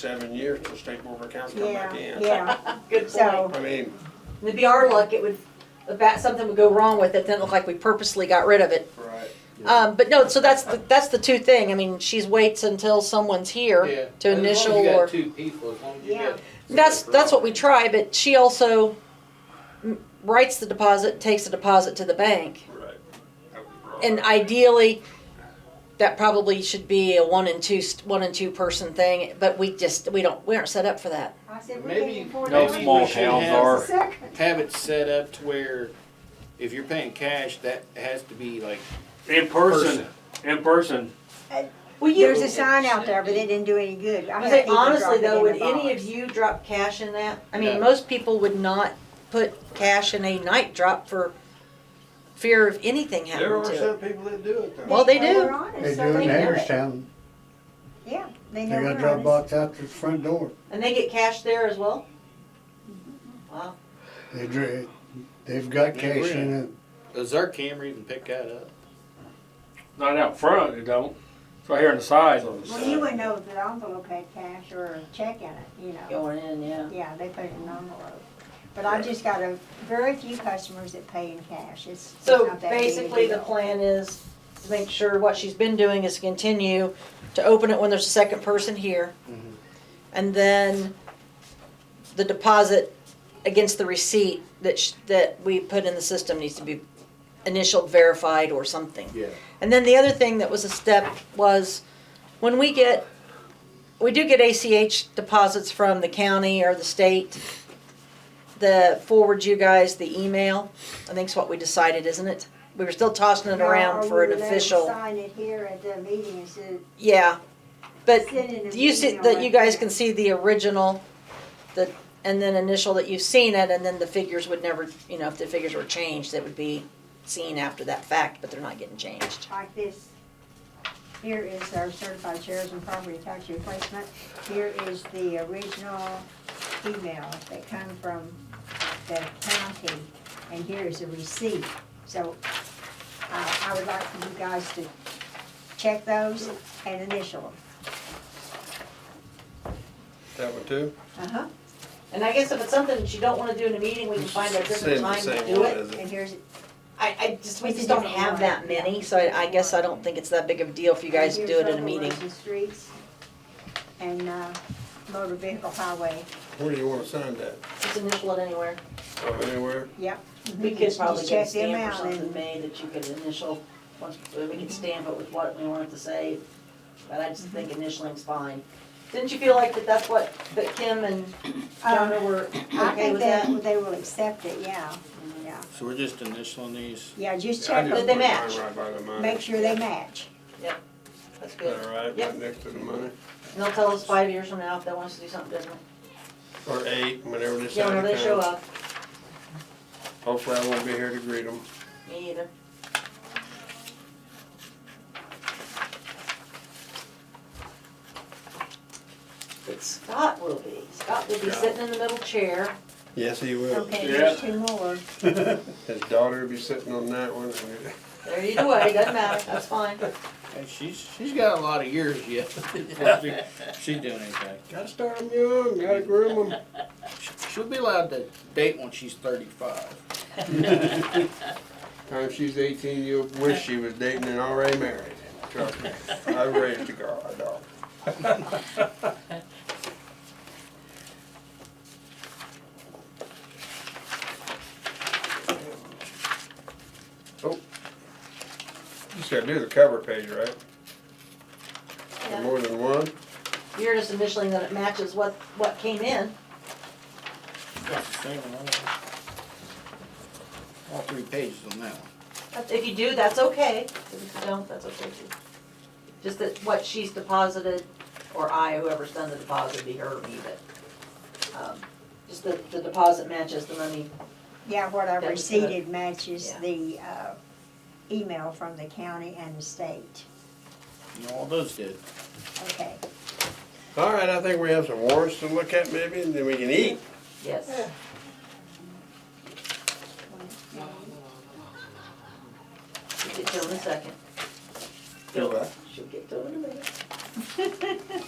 seven years till state board of accounts come back Yeah, in. yeah, Good so, I mean, And It'd be our luck, it would, if that, something would go wrong with it, then it looked like we purposely got rid of it. right, Um, but no, so that's, the that's the two thing, I mean, she's waits until someone's Yeah. here to initial As long or. as you got two people, as long as you Yeah. got. That's, that's what we try, but she also m- writes the deposit, takes the deposit to the bank. right. That was brought And up. ideally, that probably should be a one and two, st- one and two person thing, but we just, we don't, we aren't set up for that. I said, we Maybe- can't afford no that. we small should towns have- are. Second. Have it set up to where if you're paying cash, that has to be like In person, in person, Well, you, There's a sign out there, but it didn't do any good. I I had say, people honestly drop it though, in would a any of box. you drop cash in that? I No. mean, most people would not put cash in a night drop for fear of anything There happening are to some it. people that do it though. Well, they know do. we're honest, They do so it in know Hagerstown. Yeah, they They know got a we're drop honest. box out to the front door. And they get cash there as well? Wow. They dra- they've got Yeah, cash we're in in. it. Does our camera even pick that up? not out front, it don't. It's right here on the side. Well, you would know that envelope had cash or a check in it, you know. Going in, yeah. Yeah, they put it in an envelope. But I just got a, very few customers that pay in cash. It's it's So not that big a basically, the deal. plan is to make sure what she's been doing is continue to open it when there's a second person here. Mm-hmm. Mhm. And then the deposit against the receipt that, sh- that we put in the system needs to be initial verified or something. Yeah. And then the other thing that was a step was when we get, we do get ACH deposits from the county or the state. The forward you guys the email, I think's what we decided, isn't it? We were still tossing it Or- around or for you an let 'em official, Sign it here at the meeting instead of yeah. But sending an you see, email that you right guys there. can see the original, the, and then initial that you've seen it, and then the figures would never, you know, if the figures were changed, it would be seen after that fact, but they're not getting changed. like this. Here is our certified shares and property tax replacement. Here is the original email that come from the county, and here is a receipt. So uh, I would like for you guys to check those and initial them. That one too? Uh-huh. And I guess if it's something that you don't wanna do in a meeting, we can find a different Same- time to same do one, it. is it? And here's, I, I just, we It's a just don't different have one. that many, so I, I guess I don't think it's that big of a deal if you guys do and it here's in a local meeting. roads and streets and uh, motor vehicle highway. Where do you wanna sign that? Just initial it anywhere. Oh, Anywhere? We Mhm. could Just probably check get a them stamp or out something and- made that you could initial, once, we could stamp it with what we wanted to say, but I just think initialing's fine. Didn't you feel like that that's what, that Kim and Jonah were I okay think with Um, that? that they will accept it, yeah, yeah. So we're just initialing these. Yeah, just I check just Did them, they put mine match? Right by the money. make sure they match. That's Is that good. all right? Yep. Right next to the money, And they'll tell us five years from now if they want us to do something different. or eight, whenever they Yeah, sign when it they show comes. up, Hopefully I won't be here to greet them. me either. But Scott will be, Scott will be Scott. sitting in the middle chair. Yes, he will. Okay, there's two more. His daughter will be sitting on that one. and- There either way, doesn't matter, that's fine. And she's, she's got a lot of years yet. before she- She's doing anything. Gotta start them young, gotta groom them. She- She'll be allowed to date when she's thirty-five. Time she's eighteen, you'll wish she was dating and already married. Trust me, I raised a girl, a dog. Oh, just gotta do the cover page, right? Or More than one? You're just initialing that it matches what, what came in. That's the same one. All three pages on that one. If you do, that's okay. If you don't, that's okay too. Just that what she's deposited, or I, whoever's done the deposit, it'd be her or me, but, um, just that the deposit matches the money. Yeah, what I That was received matches Yeah. the uh, email from the county and the state. You know, all those did. Okay, All right, I think we have some warrants to look at maybe, and then we can eat. Yes. She'll get to it in a second. Do what? She'll get to it in a minute.